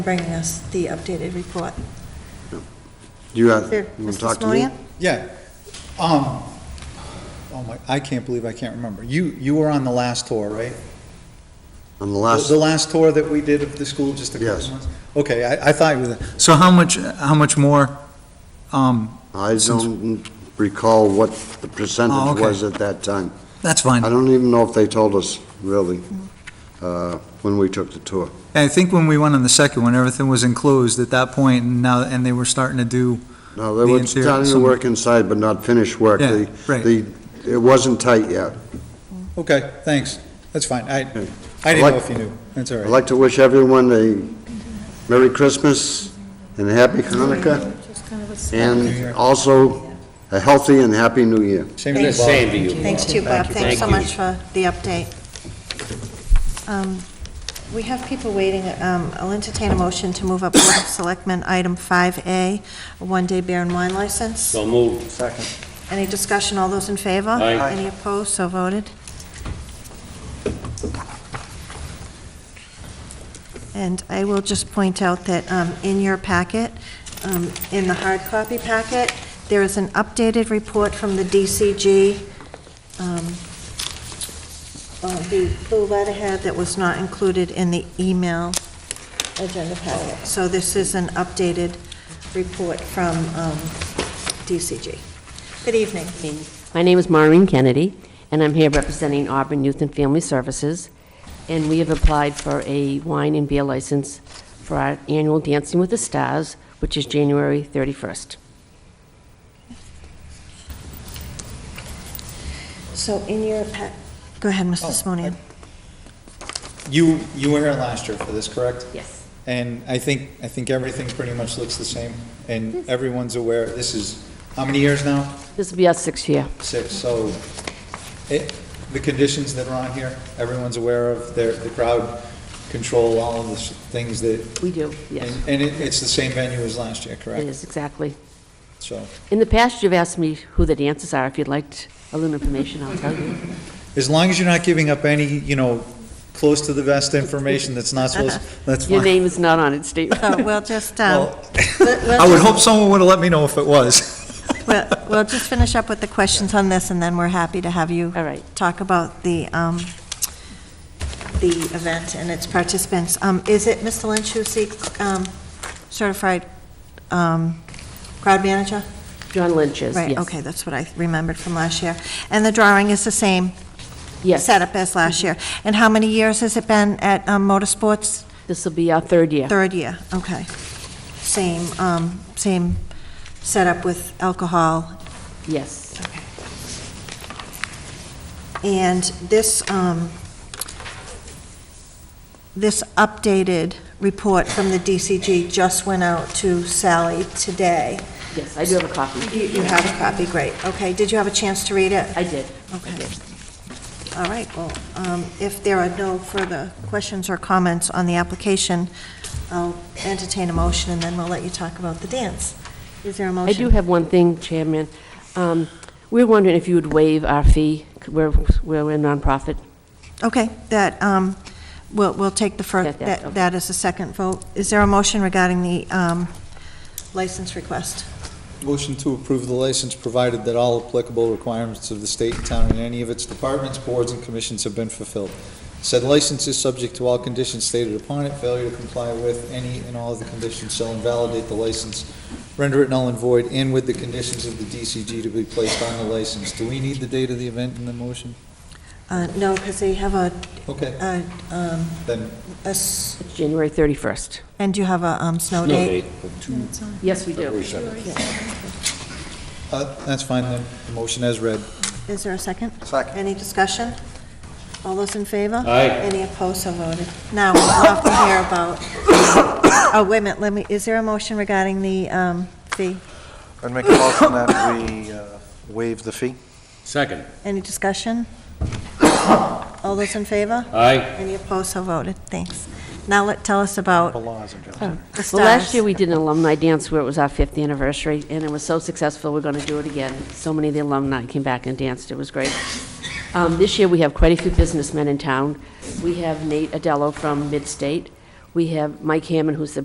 bringing us the updated report. You have, Here, you want Mr. to talk to me? Simonia? Yeah. Um, oh my, I can't believe I can't remember. You, you were on the last tour, right? On the last, The last tour that we did of the school, just a couple Yes. months? Okay, I, I thought you were there. So how much, how much more, um, I don't recall what the Oh, percentage okay. was at that time. that's fine. I don't even know if they told us, really, uh, when we took the tour. I think when we went on the second one, everything was enclosed at that point, and now, and they were starting to do, No, they The were interior, starting to some- work inside but not finish work. Yeah, The- right. The, it wasn't tight yet. okay, thanks, that's fine. I, I I'd didn't like- know if you knew, that's all I'd right. like to wish everyone a Merry Christmas and a Happy Hanukkah, and also a healthy and Happy New Year. Same to you, Bob. Same to you. Thanks to you, Bob. Thanks so Thank you. much for the update. Um, We have people waiting. Um, I'll entertain a motion to move up Board of Selectmen Item 5A, a one-day beer and wine license. So moved. Any discussion? All those in favor? Aye. Aye. Any opposed? So voted. And I will just point out that um, in your packet, um, in the hard copy packet, there is an updated report from the DCG, um, uh, the blue letterhead that was not included in the email agenda packet. So this is an updated report from um, DCG. Good evening. My name is Maureen Kennedy, and I'm here representing Auburn Youth and Family Services, and we have applied for a wine and beer license for our annual Dancing with the Stars, which is January 31st. So in your pack, go ahead, Mr. Oh, Simonian. You, you were here last year for this, correct? Yes. And I think, I think everything pretty much looks the same, and everyone's aware, this is, how many years now? This will be our sixth year. six, so it, the conditions that are on here, everyone's aware of, they're, the crowd control, all of the s- things that, We do, yes. and and it, it's the same venue as last year, It correct? is, exactly. So, In the past, you've asked me who the dancers are. If you'd like a little information, I'll tell you. as long as you're not giving up any, you know, close to the vest information that's not supposed, that's Your fine. name is not on it, Steve. So we'll just, um, Well, we'll- we'll I would just- hope someone would've let me know if it was. We'll we'll just finish up with the questions on this, and then we're happy to have you All right. talk about the, um, the event and its participants. Um, Is it Mr. Lynch who seeks um, certified um, crowd manager? John Lynch is, yes. Right, okay, that's what I remembered from last year. And the drawing is the same Yes, setup as last year. And how many years has it been at um, Motorsports? this will be our third year. Third year, okay. Same, um, same setup with alcohol Yes. And this, um, this updated report from the DCG just went out to Sally today. Yes, I do have a copy. You you have a copy, great. Okay, did you have a chance to read it? I did. Okay. All right, well, um, if there are no further questions or comments on the application, I'll entertain a motion, and then we'll let you talk about the dance. Is there a I motion? do have one thing, Chairman. Um, We're wondering if you would waive our fee. We're, we're a nonprofit. Okay, that, um, we'll, we'll take the first, That- that, that, okay. that is the second vote. Is there a motion regarding the, um, license request? Motion to approve the license, provided that all applicable requirements of the state and town and any of its departments, boards, and commissions have been fulfilled. Said license is subject to all conditions stated upon it. Failure to comply with any and all of the conditions shall invalidate the license, render it null and void, and with the conditions of the DCG to be placed on the license. Do we need the date of the event in the motion? Uh, no, because they have a, Okay, a, um, then, a s- It's January 31st. and you have a, um, snow date? Yes, we do. uh, that's fine then. The motion as read. Is there a second? Second. Any discussion? All those in favor? Aye. Any opposed, so voted. Now, we'll have to hear about, oh, wait a minute, let me, is there a motion regarding the, um, fee? I'd make a motion that we uh, waive the fee. Second. Any discussion? All those in favor? Aye. Any opposed, so voted. Thanks. Now let, tell us about Laws and Oh. the stars. Well, last year, we did an alumni dance where it was our fifth anniversary, and it was so successful, we're going to do it again. So many of the alumni came back and danced, it was great. Um, This year, we have quite a few businessmen in town. We have Nate Adello from Midstate. We have Mike Hammond, who's the